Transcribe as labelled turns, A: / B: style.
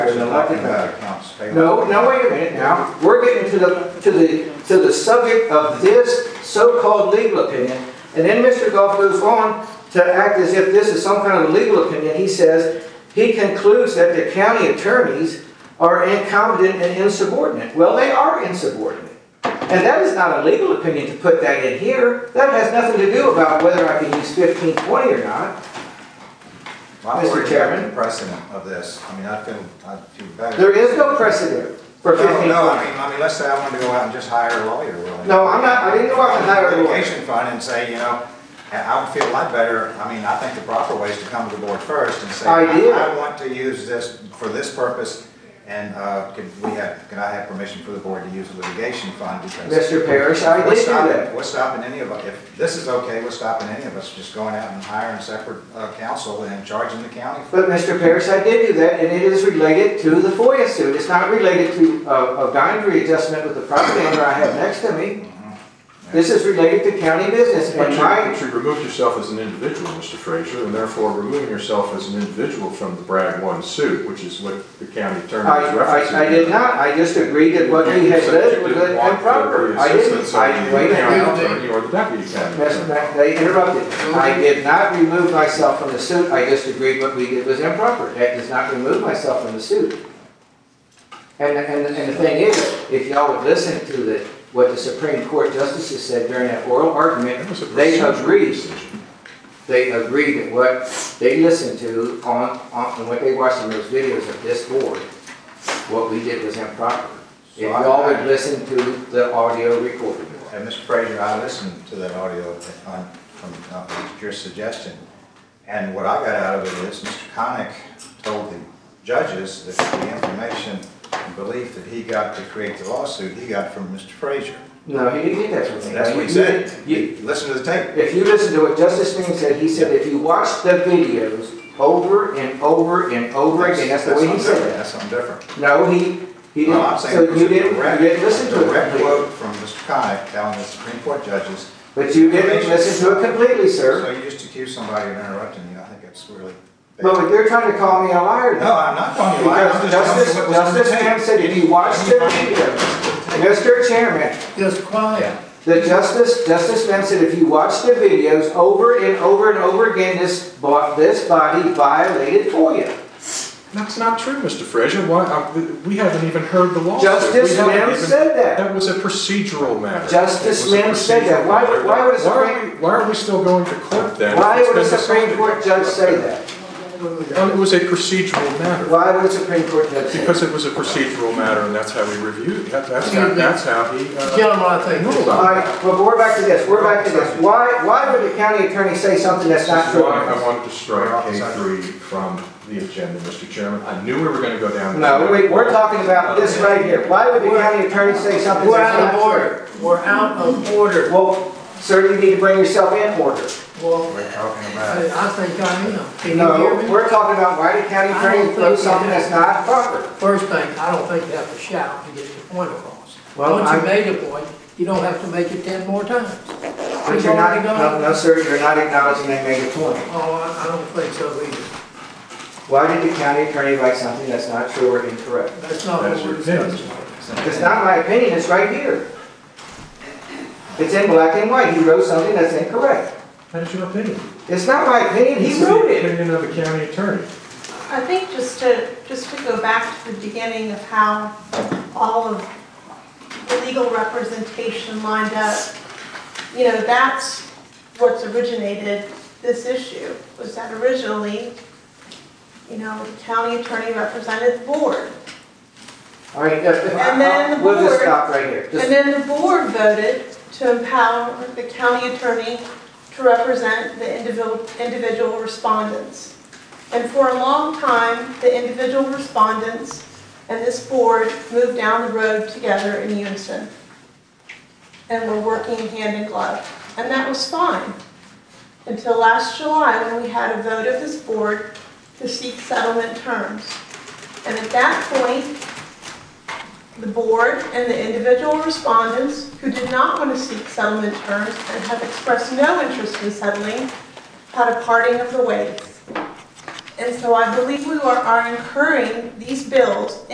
A: there's a lot to cover.
B: Accounts payable.
A: No, no, wait a minute now. We're getting to the, to the, to the subject of this so-called legal opinion. And then Mr. Goff goes on to act as if this is some kind of legal opinion. He says, he concludes that the county attorneys are incompetent and insubordinate. Well, they are insubordinate. And that is not a legal opinion to put that in here. That has nothing to do about whether I can use fifteen twenty or not.
B: My
A: Mr.
B: worry is the
A: Chairman.
B: Precedent of this, I mean, I feel, I feel better.
A: There is no precedent for
B: No,
A: fifteen
B: No, I
A: twenty.
B: mean, I mean, let's say I wanted to go out and just hire a lawyer, really.
A: No, I'm not, I didn't go out and hire a lawyer.
B: Litigation fund and say, you know, I- I would feel a lot better, I mean, I think the proper way is to come to the board first and say,
A: I did.
B: I want to use this for this purpose, and, uh, could we have, can I have permission for the board to use the litigation fund because.
A: Mr. Parrish, I did
B: What's
A: do
B: stopping,
A: that.
B: what's stopping any of us, if this is okay, what's stopping any of us just going out and hiring separate, uh, counsel and charging the county? for
A: But Mr. Parrish, I did do that, and it is related to the FOIA suit. It's not related to uh, a, a boundary adjustment with the property owner I have next to me. This is related to county business,
C: But
A: and
C: you,
A: my,
C: but you removed yourself as an individual, Mr. Frazier, and therefore removing yourself as an individual from the Bragg One suit, which is what the county attorney
A: I,
C: is referencing.
A: I, I did not, I just agreed that what he had said was improper. I didn't, I, wait a minute.
C: You are the deputy county
A: Mr.
C: attorney.
A: Mac- They interrupted. I did not remove myself from the suit, I just agreed what we did was improper. That does not remove myself from the suit. And, and, and the thing is, if y'all would listen to the, what the Supreme Court justices said during that oral argument,
C: That was a
A: they
C: procedural
A: agreed,
C: decision.
A: they agreed that what they listened to on, on, and what they watched in those videos of this board, what we did was improper. If
B: So I-
A: y'all would listen to the audio recording.
B: And Mr. Frazier, I listened to that audio on, from uh, your suggestion, and what I got out of it is Mr. Connick told the judges that the information and belief that he got to create the lawsuit, he got from Mr. Frazier.
A: No, he didn't get that from me.
B: That's what he
A: You-
B: said.
A: you-
B: Listen to the tape.
A: If you listen to what Justice Smith said, he said if you watch the videos over and over and over again, that's the way he
B: That's
A: said
B: something different. That's something different.
A: it. No, he, he
B: No, I'm
A: didn't,
B: saying
A: so
B: it was
A: you
B: a
A: didn't, you
B: direct-
A: didn't listen to it
B: Direct
A: completely.
B: quote from Mr. Connick telling the Supreme Court judges,
A: But you didn't listen to it completely,
B: so
A: sir.
B: you just accuse somebody of interrupting you, I think that's really bad.
A: But you're trying to call me a liar
B: No,
A: now.
B: I'm not calling you a liar. I'm
A: Because
B: just telling you
A: Justice,
B: what was on the
A: Justice
B: tape.
A: Smith said if you watch the video, Mr. Chairman,
D: Just quiet.
A: The justice, Justice Smith said if you watch the videos over and over and over again, this, bo- this body violated FOIA.
C: That's not true, Mr. Frazier. Why, I- we haven't even heard the lawsuit.
A: Justice
C: We haven't
A: Mims
C: even-
A: said that.
C: That was a procedural matter.
A: Justice
C: It was a
A: Mims said that. Why would-
C: procedural
A: why would a
C: matter. Why are
A: Supreme-
C: we- Why are we still going to court then? if
A: Why
C: it's
A: would a
C: been
A: Supreme
C: decided?
A: Court judge say that?
C: Well, It was a procedural matter.
A: Why would a Supreme Court judge say that?
C: Because it was a procedural matter, and that's how we reviewed, that- that's
D: Excuse
C: how,
D: me.
C: that's how he, uh,
D: Gentlemen, I think this
A: All right, well, we're back to this, we're back to this. Why, why would the county attorney say something that's
C: this
A: not
C: is why I
A: true?
C: wanted to strike K three from the agenda, Mr. Chairman, I knew we were gonna go down. this
A: No, we,
C: road.
A: we're talking about this right here. Why would the county attorney say something
D: we're
A: that's
D: out of
A: not
D: order. We're out of
A: true?
D: order.
A: Well, sir, you need to bring yourself in order.
D: Well,
B: We're talking about.
D: I think I am. Can you
A: No,
D: hear me?
A: we're talking about why the county
D: I don't
A: attorney wrote
D: think
A: something
D: that-
A: that's not proper.
D: First thing, I don't think you have to shout to get your point across.
A: Well,
D: Once
A: I-
D: you made a point, you don't have to make it ten more times.
A: But you're not, no, no, sir, you're not acknowledging they made a point.
D: Oh, I, I don't think so either.
A: Why did the county attorney write something that's not true or incorrect?
D: That's not
C: That's
D: what we're
C: your opinion.
D: discussing.
A: It's not my opinion, it's right here. It's in black and white, he wrote something that's incorrect.
C: That is your opinion.
A: It's not my opinion,
C: This
A: he
C: is the
A: wrote it.
C: Opinion of the county attorney.
E: I think just to, just to go back to the beginning of how all of the legal representation lined up, you know, that's what's originated this issue, was that originally, you know, the county attorney represented the board.
A: All right,
E: And then
A: uh,
E: the
A: we'll just
E: board-
A: stop right here.
E: And
A: Just-
E: then the board voted to empower the county attorney to represent the individual, individual respondents. And for a long time, the individual respondents and this board moved down the road together in unison. And were working hand in glove. And that was fine. Until last July, when we had a vote of this board to seek settlement terms. And at that point, the board and the individual respondents who did not want to seek settlement terms and have expressed no interest in settling had a parting of the ways. And so I believe we are are incurring these bills